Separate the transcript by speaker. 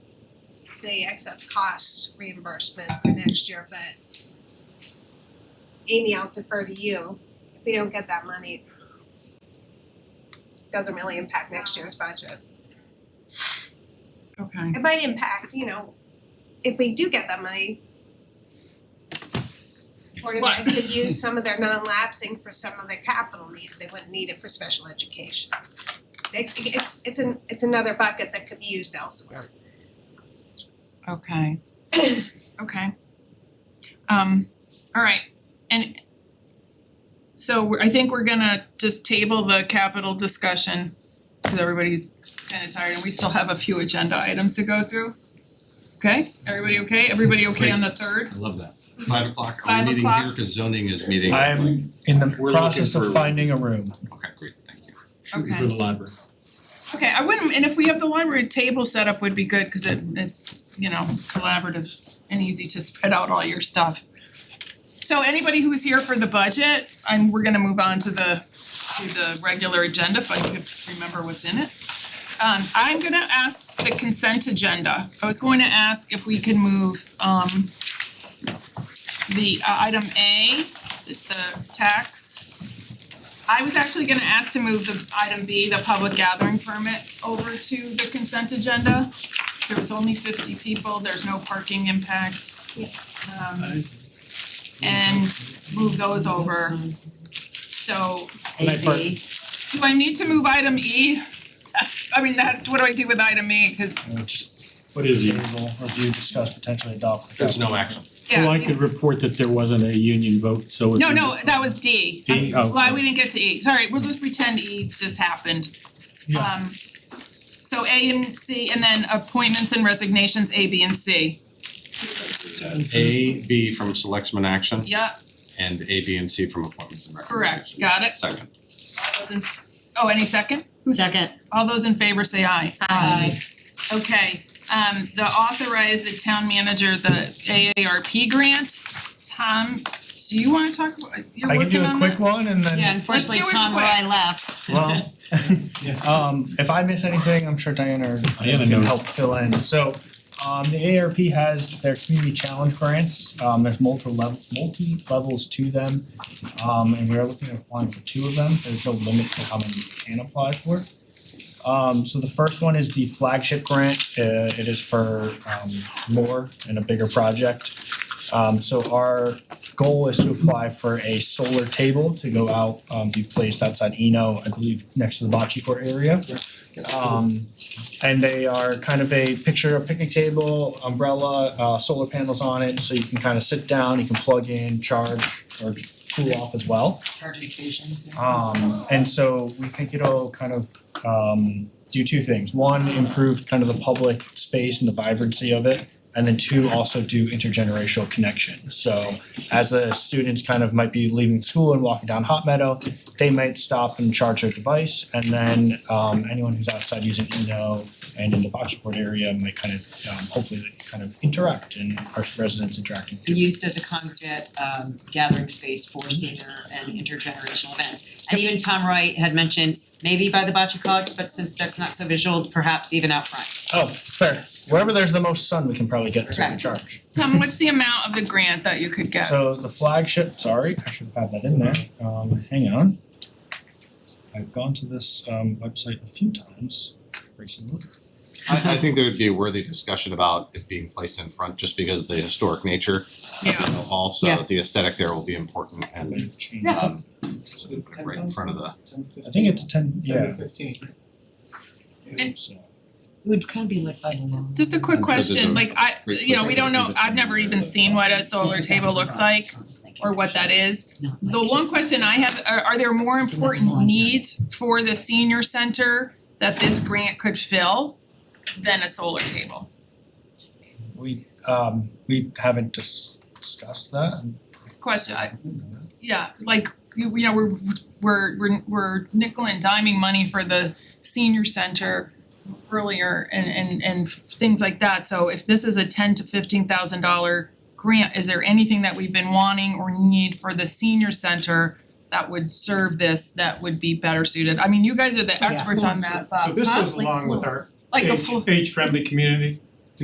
Speaker 1: the excess costs reimbursement for next year, but Amy, I'll defer to you. If we don't get that money, it doesn't really impact next year's budget.
Speaker 2: Okay.
Speaker 1: It might impact, you know, if we do get that money. Board of Ed could use some of their non-lapsing for some of their capital needs, they wouldn't need it for special education. They- it- it's an, it's another bucket that could be used elsewhere.
Speaker 2: Okay. Okay. Um, all right, and so we're- I think we're gonna just table the capital discussion because everybody's kind of tired and we still have a few agenda items to go through. Okay, everybody okay? Everybody okay on the third?
Speaker 3: I love that. Five o'clock, are
Speaker 2: Five
Speaker 3: we meeting
Speaker 2: o'clock.
Speaker 3: here, cause zoning is meeting?
Speaker 4: I'm in the
Speaker 3: We're looking
Speaker 4: process
Speaker 3: for a
Speaker 4: of
Speaker 3: room.
Speaker 4: finding a room.
Speaker 3: Okay, great, thank you.
Speaker 2: Okay.
Speaker 5: the library.
Speaker 2: Okay, I wouldn't, and if we have the library table set up would be good because it it's, you know, collaborative and easy to spread out all your stuff. So anybody who's here for the budget, and we're gonna move on to the to the regular agenda if I could remember what's in it. Um I'm gonna ask the consent agenda. I was going to ask if we can move um the uh, item A, the tax I was actually gonna ask to move the item B, the public gathering permit, over to the consent agenda. There was only fifty people, there's no parking impact. Um and move those over. So
Speaker 4: Maybe.
Speaker 2: do I need to move item E? I mean, that, what do I do with item E? Cause
Speaker 5: What is it?
Speaker 4: Table, review, discuss, potentially adopt.
Speaker 3: There's no action.
Speaker 2: yeah.
Speaker 5: Well, I could report that there wasn't a union vote, so. it-
Speaker 2: No, no, that was D.
Speaker 5: D, oh.
Speaker 2: Why we didn't get to E. Sorry, we'll just pretend E's just happened.
Speaker 4: Yeah.
Speaker 2: Um so A and C and then appointments and resignations, A, B, and C.
Speaker 3: A, B from selectmen action
Speaker 2: Yeah,
Speaker 3: and A, B, and C from appointments and recommendations.
Speaker 2: Correct, got it.
Speaker 3: Second.
Speaker 2: all those in, oh, any second?
Speaker 6: Second.
Speaker 2: All those in favor say aye.
Speaker 6: Aye.
Speaker 2: Okay, um the authorize the town manager, the AARP grant. Tom, do you wanna talk, about- you're
Speaker 4: I can
Speaker 2: working
Speaker 4: do a
Speaker 2: on
Speaker 4: quick
Speaker 2: that?
Speaker 4: one and then.
Speaker 6: Yeah, unfortunately,
Speaker 2: do it
Speaker 6: Tom
Speaker 2: quick.
Speaker 6: Roy left.
Speaker 4: Well, um, if I miss anything, I'm sure Diana or
Speaker 5: Diana
Speaker 4: Diana can
Speaker 5: knows.
Speaker 4: help fill in. So, um, the ARP has their community challenge grants. Um, there's multiple level, multi levels to them. Um, and we are looking at applying for two of them. There's no limit to how many you can apply for. Um, so the first one is the flagship grant. Uh, it is for, um, more and a bigger project. Um, so our goal is to apply for a solar table to go out, um, be placed outside Eno, I believe, next to the bocce court area. Um, and they are kind of a picture, a picnic table, umbrella, uh, solar panels on it, so you can kind of sit down, you can plug in, charge, or cool off as well.
Speaker 6: Charging stations.
Speaker 4: Um and so we think it'll kind of um do two things. One, improve kind of the public space and the vibrancy of it. And then two, also do intergenerational connection. So as the students kind of might be leaving school and walking down Hot Meadow, they might stop and charge their device. And then um anyone who's outside using Eno and in the bocce court area might kind of um hopefully they kind of interact and our residents interacting. too.
Speaker 6: Used as a congregate um gathering space for senior and intergenerational events. And even Tom Roy had mentioned maybe by the bocce court, but since that's not so visual, perhaps even out front.
Speaker 4: Oh, fair. Wherever there's the most sun, we can probably get to and
Speaker 6: Correct.
Speaker 4: charge.
Speaker 2: Tom, what's the amount of the grant that you could get?
Speaker 4: So the flagship, sorry, I should have had that in there, um, hang on. I've gone to this um website a few times recently.
Speaker 3: I I think there would be a worthy discussion about it being placed in front just because of the historic nature.
Speaker 2: Yeah.
Speaker 3: You know, Also,
Speaker 6: Yeah.
Speaker 3: the aesthetic there will be important and
Speaker 4: They've changed.
Speaker 6: Yeah.
Speaker 3: um right in front of the
Speaker 4: I think it's ten, yeah.
Speaker 2: And-
Speaker 4: So,
Speaker 6: It would kind of be lit by the moon.
Speaker 2: Just a quick
Speaker 3: I'm sure there's
Speaker 2: question,
Speaker 3: a
Speaker 2: like I,
Speaker 3: great
Speaker 2: you know, we don't
Speaker 3: question.
Speaker 2: know, I've never even seen what a solar table looks like or what that is. The one question I have, are are there more important
Speaker 6: longer.
Speaker 2: needs for the senior center that this grant could fill than a solar table?
Speaker 4: We um we haven't dis- discussed that.
Speaker 2: Question, I, yeah, like, you you know, we're we're we're we're nickel and diming money for the senior center earlier and and and things like that, so if this is a ten to fifteen thousand dollar grant, is there anything that we've been wanting or need for the senior center that would serve this, that would be better suited? I mean, you guys are the
Speaker 6: Yeah.
Speaker 2: experts on that, but
Speaker 7: So this
Speaker 2: huh?
Speaker 7: goes along with our
Speaker 2: Like a
Speaker 7: age
Speaker 2: full,
Speaker 7: age friendly community,